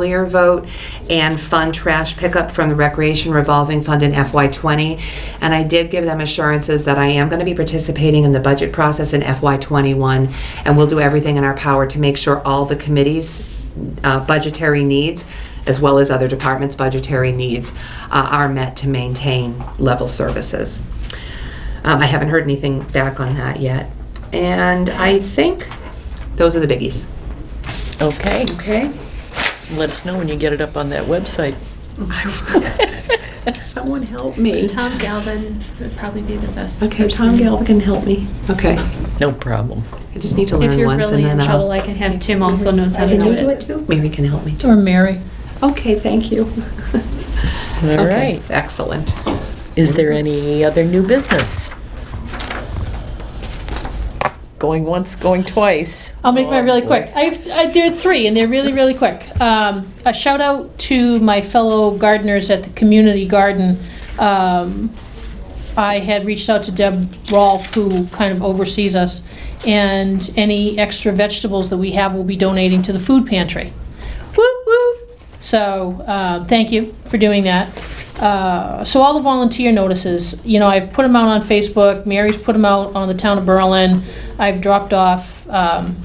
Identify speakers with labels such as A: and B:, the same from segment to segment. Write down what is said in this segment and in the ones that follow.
A: earlier vote and fund trash pickup from the Recreation Revolving Fund in FY20. And I did give them assurances that I am going to be participating in the budget process in FY21, and we'll do everything in our power to make sure all the committee's uh, budgetary needs, as well as other departments' budgetary needs, uh, are met to maintain level services. Um, I haven't heard anything back on that yet. And I think those are the biggies.
B: Okay,
A: Okay.
B: let us know when you get it up on that website.
A: Someone help me.
C: Tom Galvin would probably be the best.
A: Okay, Tom
C: person.
A: Galvin can help me. Okay.
B: No problem.
A: I just need to
C: If
A: learn
C: you're
A: once
C: really
A: and
C: in
A: then
C: trouble,
A: I'll.
C: I can have Tim also knows how to
A: Mm-hmm. Can
C: do
A: you do it
C: it.
A: too? Mary can help me.
D: Or Mary.
A: Okay, thank you.
B: All
A: Okay,
B: right.
A: Excellent.
B: Is there any other new business? Going once, going twice.
D: I'll make mine really quick. I've, I, there are three, and they're really, really quick. Um, a shout out to my fellow gardeners at the community garden. Um, I had reached out to Deb Rolfe, who kind of oversees us, and any extra vegetables that we have will be donating to the food pantry. Woo woo! So uh, thank you for doing that. Uh, so all the volunteer notices, you know, I've put them out on Facebook. Mary's put them out on the town of Berlin. I've dropped off um,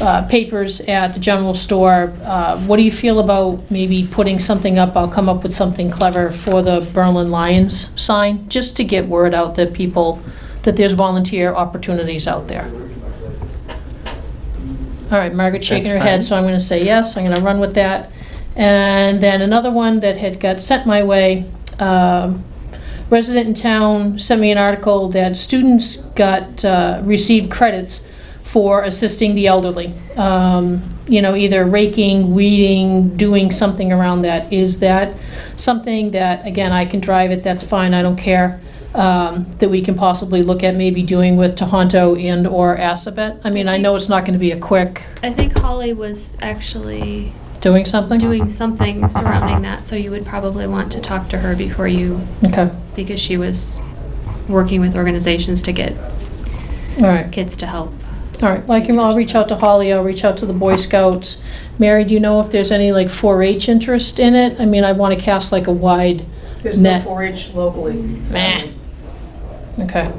D: uh, papers at the general store. Uh, what do you feel about maybe putting something up? I'll come up with something clever for the Berlin Lions sign, just to get word out that people that there's volunteer opportunities out there. All right, Margaret shaking her
B: That's fine.
D: head, so I'm gonna say yes, I'm gonna run with that. And then another one that had got sent my way, um, resident in town sent me an article that students got, uh, received credits for assisting the elderly. Um, You know, either raking, weeding, doing something around that. Is that something that, again, I can drive it, that's fine, I don't care, um, that we can possibly look at maybe doing with Tohoto and/or Assabet? I mean, I know it's not going to be a quick
C: I think Holly was actually
D: doing something?
C: doing something surrounding that, so you would probably want to talk to her before you,
D: Okay,
C: because she was working with organizations to get
D: all right.
C: kids to help.
D: All right, well, I can, I'll reach out to Holly, I'll reach out to the Boy Scouts. Mary, do you know if there's any like 4-H interest in it? I mean, I want to cast like a wide,
E: There's no
D: Net.
E: 4-H locally. so-
D: Meh. okay.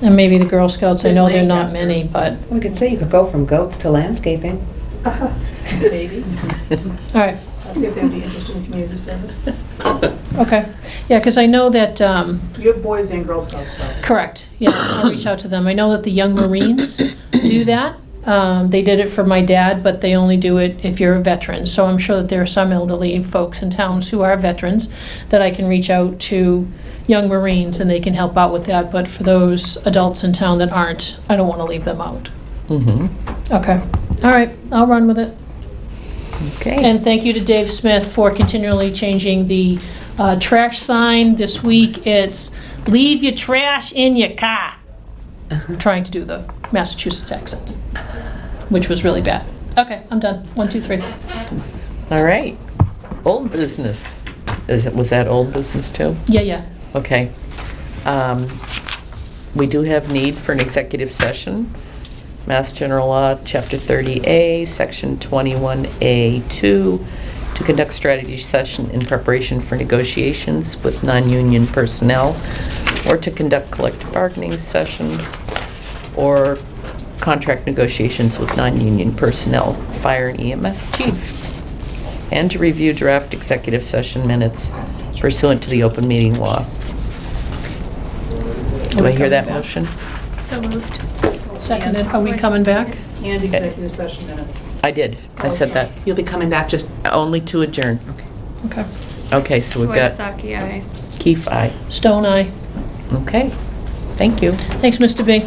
D: And maybe the Girl Scouts, I know they're not
E: There's
D: many, but,
A: We could say you could go from goats to landscaping.
E: Maybe.
D: all right,
E: I'll see if they would be interested in community service.
D: okay. Yeah, because I know that, um,
E: You have boys and girls Scouts, though.
D: Correct, yeah, I'll reach out to them. I know that the Young Marines do that. Um, They did it for my dad, but they only do it if you're a veteran. So I'm sure that there are some elderly folks in towns who are veterans that I can reach out to Young Marines and they can help out with that. But for those adults in town that aren't, I don't want to leave them out.
B: Mhm.
D: Okay, all right, I'll run with it.
B: Okay.
D: And thank you to Dave Smith for continually changing the uh, trash sign. This week, it's "Leave your trash in your car." I'm Trying to do the Massachusetts accent, which was really bad. Okay, I'm done. One, two, three.
B: All right. Old business. Is it, was that old business too?
D: Yeah, yeah.
B: Okay. Um, We do have need for an executive session. Mass General Law, Chapter 30A, Section 21A2, to conduct strategy session in preparation for negotiations with non-union personnel, or to conduct collective bargaining session, or contract negotiations with non-union personnel, fire and EMS chief and to review draft executive session minutes pursuant to the open meeting law. Do I hear that motion?
C: So moved.
D: Seconded. Are we coming back?
E: And executive session minutes.
B: I did. I said that.
A: You'll be coming back just
B: Only to adjourn.
D: Okay.
B: Okay, so we've got
C: Kawasaki, aye.
B: Keefe, aye.
D: Stone eye.
B: Okay, thank you.
D: Thanks, Mr. B.